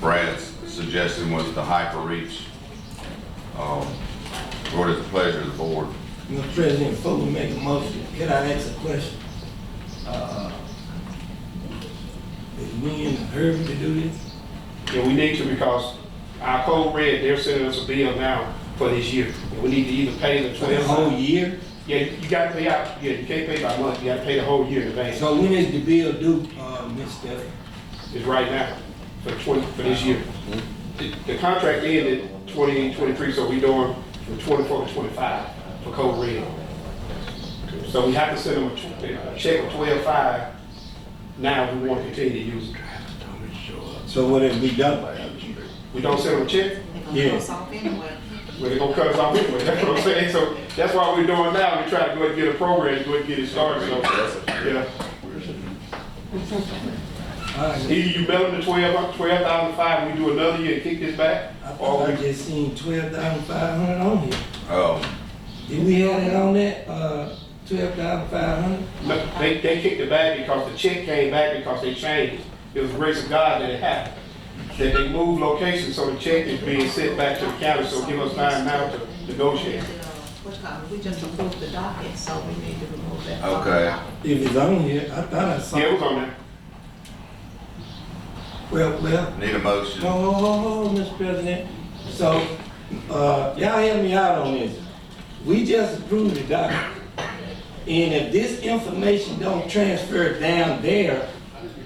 Brad's suggestion was the hyper-reach. Um, What is the pleasure of the board? Mr. President, before we make a motion, can I ask a question? Uh, Is we in a hurry to do this? And we need to because our code red, they're sending us a bill now for this year. And we need to either pay the For the whole twelve. year? Yeah, you gotta pay out, yeah, you can't pay by month, you gotta pay the whole year in advance. So when is the bill due, uh, Mr.? It's right now, for twenty, for this year. The the contract ended twenty twenty-three, so we doing from twenty-four to twenty-five for code red. So we have to send them a tw- a check of twelve-five now if we want to continue to use it. So what if we done? We don't send them a check, Yeah. Well, they're gonna cut us off anyway, that's what I'm saying, so that's why we're doing now, we try to go and get a program, go and get it started, so, yeah. All right, Either you mail them the twelve, twelve thousand five, and we do another year and kick this back, I or thought I we, just seen twelve thousand five hundred on here. Um, Did we have it on that, uh, twelve thousand five hundred? no, they, they kicked it back because the check came back because they changed. It was the grace of God that it happened, that they moved location, so the check is being sent back to the county, so give us time now to negotiate. uh, We just approved the docket, so we need to remove that. Okay. If it's on here, I thought I saw. Yeah, it was on there, Well, well, Need a motion? no, hold, hold, hold, Mr. President. So, uh, y'all help me out on this. We just approved the document. And if this information don't transfer down there,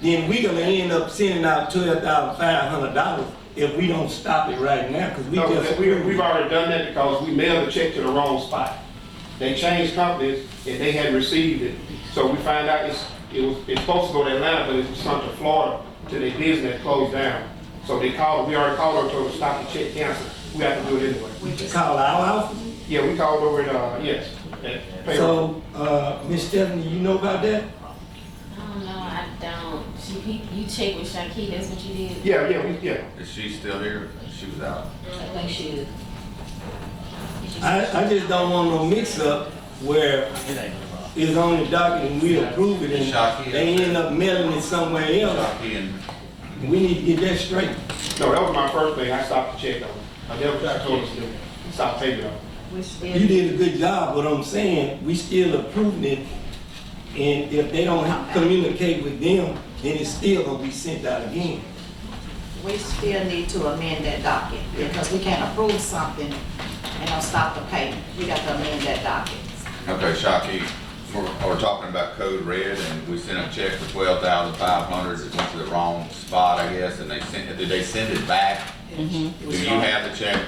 then we gonna end up sending out twelve thousand five hundred dollars if we don't stop it right now, cause we no, just. we, approved it. we've already done that because we mailed the check to the wrong spot. They changed companies and they hadn't received it. So we find out it's, it was, it's supposed to go to Atlanta, but it's sent to Florida, to their business that closed down. So they called, we already called her, told her to stop the check cancel. We have to do it anyway. We just, Call our office. Yeah, we called over at, uh, yes. at payroll. So, uh, Ms. Stephanie, you know about that? don't know, I don't. She, he- you checked with Shaki, that's what you did? Yeah, yeah, we, yeah. Is she still here? She was out. I think she is. I, I just don't want no mix-up where it's on the docket and we approve it and they end up mailing it somewhere else. Shockey and We need to get that straight. No, that was my first thing. I stopped the check on. I never, I told us to stop payment on. we still. You did a good job, but I'm saying, we still approving it. And if they don't communicate with them, then it's still gonna be sent out again. We still need to amend that docket, because we can't approve something and don't stop the payment. We got to amend that docket. Okay, Shockey, we're, we're talking about Code Red, and we sent a check for twelve thousand five hundred, it went to the wrong spot, I guess, and they sent, did they send it back? Mm-hmm. Do you have the check?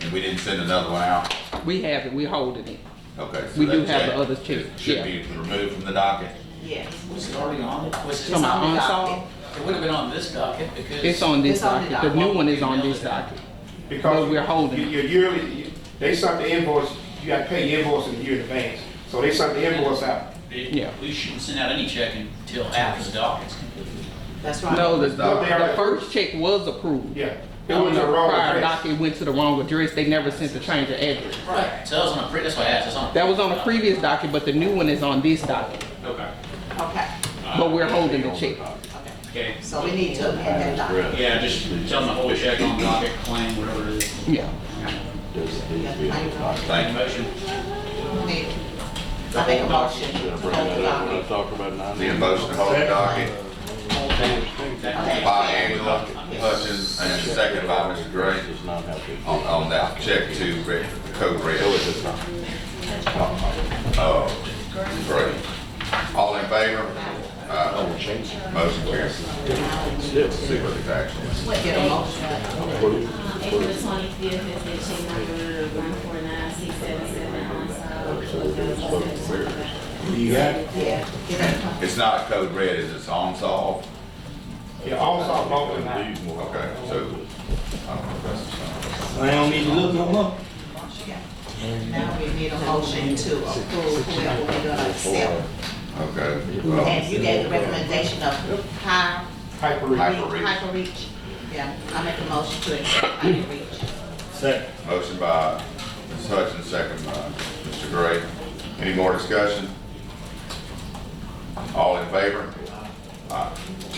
And we didn't send another one out? We have it, we holding it. Okay. so We do that have the check other check, Should yeah. be removed from the docket? Yes. Was it already on it? Was Come it, It's on on. the Unsolved? docket. it would have been on this docket because. It's on this It's on the docket, the new docket. one is on this docket. Because But we're holding it. Your your yearly, they sent the invoice, you gotta pay the invoice in a year in advance. So they sent the invoice out. Yeah. We shouldn't send out any check until after the docket's completed. That's right. No, the, No, they are- the first check was approved. Yeah. It On was the a wrong prior address. docket, it went to the wrong address, they never sent the change of address. Right. So that was on a, pre- that's why I asked, that's on. a- That was on the previous docket, but the new one is on this docket, Okay. Okay, but we're holding the check. Okay. so we need to amend that docket. Yeah, just tell them to hold check on docket, claim, whatever it is. Yeah. I Thank you. Motion. make a motion to hold the docket. The motion to hold the docket, by Angela Hutchins, and second by Mr. Gray, on, on that check to Red, Code Red. Uh, Gray. All in favor? Uh, motion carries. Secret action. Get a motion. April the twenty-fifth is the check number one four nine six seven seven unsolved. You got it? Yeah. Get It's not Code Red, is it? It's unsolved? Yeah, all saw both of them. Okay, so, I don't know if that's, So I don't need to look no more? a- Now we need a motion to approve whoever we're gonna accept. okay. And well, you gave the recommendation of high Hyper. Hyper reach. Hyper reach. Yeah, I make a motion to accept hyper reach. Second. Motion by Ms. Hutchins, second by Mr. Gray. Any more discussion? All in favor? Aye.